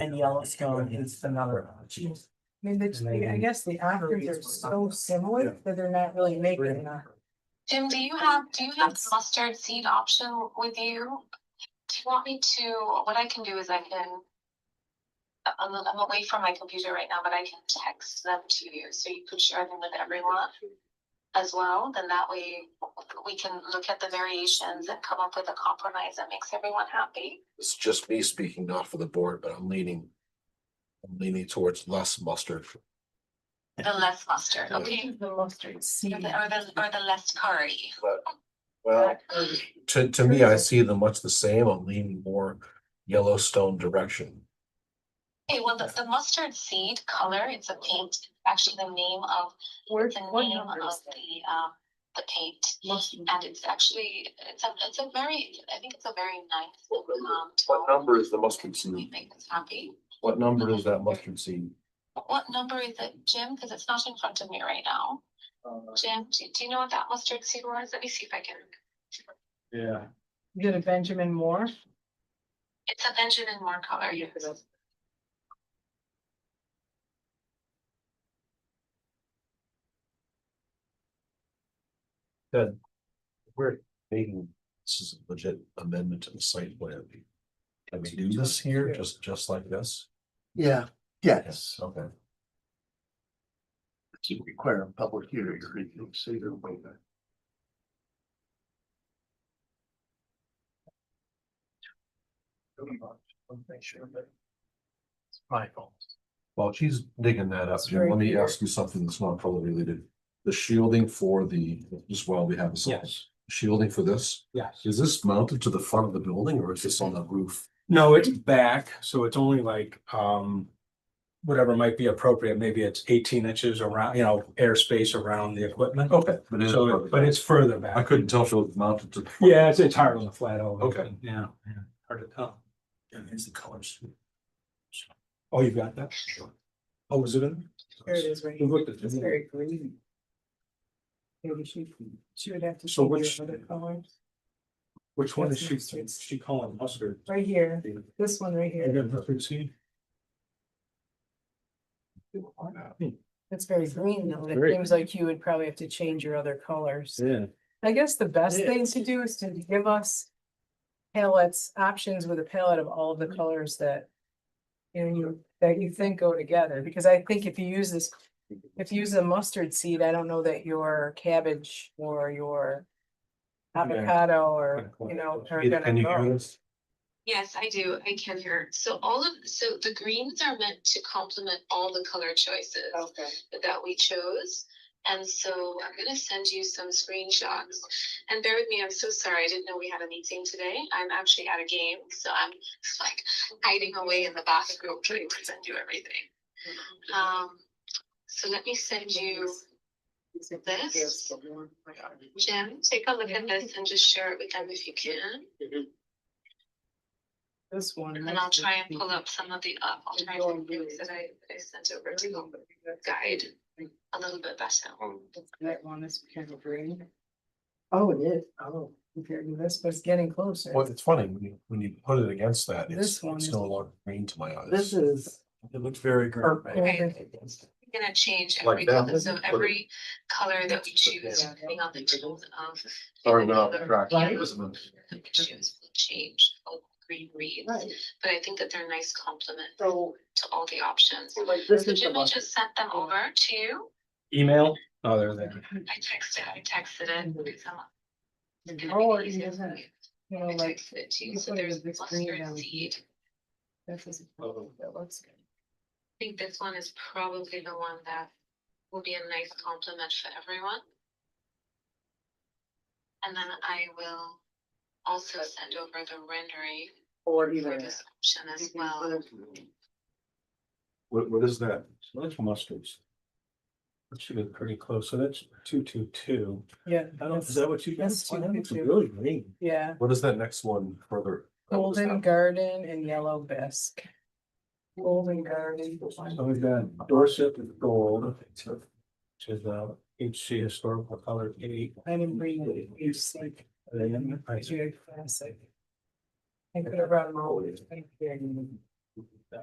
And Yellowstone is another. option. I mean, the- I guess the actors are so similar that they're not really making that. Jim, do you have, do you have the mustard seed option with you? Do you want me to, what I can do is I can. I'm, I'm away from my computer right now, but I can text them to you, so you could share them with everyone. As well, then that way we can look at the variations and come up with a compromise that makes everyone happy. It's just me speaking, not for the board, but I'm leaning. I'm leaning towards less mustard. The less mustard, Yeah. okay? The mustard seed. Or the, or the, or the less curry. Well, to, to me, I see them much the same. I'm leaning more Yellowstone direction. Okay, well, the, the mustard seed color, it's a paint, actually the name of Where, It's a what name of number is Mm-hmm. that? the, um, the paint, Mustard. and it's actually, it's a, it's a very, I think it's a very nice, um, tone. is the mustard We make this happy. What number is that mustard seed? What number is it, Jim? Cause it's not in front of me right now. Jim, do, do you know what that mustard seed was? Let me see if I can. Yeah. You did a Benjamin Moore? It's a Benjamin Moore color, yes. We're making, this is a legit amendment to the site plan. Can we do this here, just, just like this? Yeah, yes, Okay. to require a public hearing or anything, so you're aware of that. It's My fault. While she's digging that up, It's Jim, let right me here. ask you something that's not probably related. The shielding for the, just while we have this. on, Yes, Shielding for this, yes. is this mounted to the front of the building or is this on the roof? No, it's back, so it's only like, um, whatever might be appropriate, maybe it's eighteen inches around, you know, airspace around the equipment. Okay. But it's, So, but it's Oh, further back. I couldn't tell if it was mounted to. the front. Yeah, it's, it's hard on the flat over. Okay. Yeah, yeah, hard to tell. And It's the colors. Oh, you've got that? Sure. Oh, was it in? Here it is, right We here. looked at It's it. very green. Maybe she, she would have to. So figure which- out other color. Which one is Yes, she, it's- it's- she calling mustard? Right here, this one right You here, got mustard seed? it's very green though, and it Very. seems like you would probably have to change your other colors. Yeah. I guess the best thing to do is to give us palettes, options with a palette of all of Mm-hmm. the colors that you know, you, that you think go together, because I think if you use this, if you use a mustard seed, I don't know that your cabbage or your avocado or, you know, are Either- Can gonna you hear go. this? Yes, I do. I can hear. So all of, so the greens are meant to complement all the color choices. Okay. that we chose. And so I'm gonna send you some screenshots. And bear with me, I'm so sorry, I didn't know we had a meeting today. I'm actually at a game, so I'm just like hiding away in the bathroom trying to send you everything. Um, so let me send you, this. Jim, take a look at this and just share it with them if you can. This one. And I'll try and pull up some of the, uh, alternative routes that I, that I sent over to you guide a little bit better. That one is kind of green. Oh, it is. Oh, compared to this, but it's getting closer. Well, it's funny, when you, when you put it against that, This it's, one it's is- no longer green to my eyes. This is. It looks very Or- green. We're Gonna change Like every that? color, so Put it- every color that we choose, Yeah. depending on the tone of. Sorry, the no, color correct. that Right. we Choose will change how green reads, but I think that they're a nice complement So, to all the options. like, So Jimmy just sent them over to you. Email? Oh, they're there. I texted, I texted it. it's on- it's gonna be Oh, it easier isn't, for you. You know, I like, texted it to you, you so put it there's with this green down mustard here. seed. this is, Oh. that looks good. I think this one is probably the one that will be a nice compliment for everyone. And then I will also send over the rendering Or for this option as well. What, what is that? So that's mustards. That should be pretty close, so that's two, two, two. Yeah. I don't, is that's- that what you guys? That's see? That looks 222. really green. Yeah, What is that next one further? That was golden that- garden and yellow bisque. Golden garden. So we've Oh, got Dorset with gold, which is the HC historical color eight. I didn't bring it, it's like, And then I- very classic. I could have brought them all. I think they're in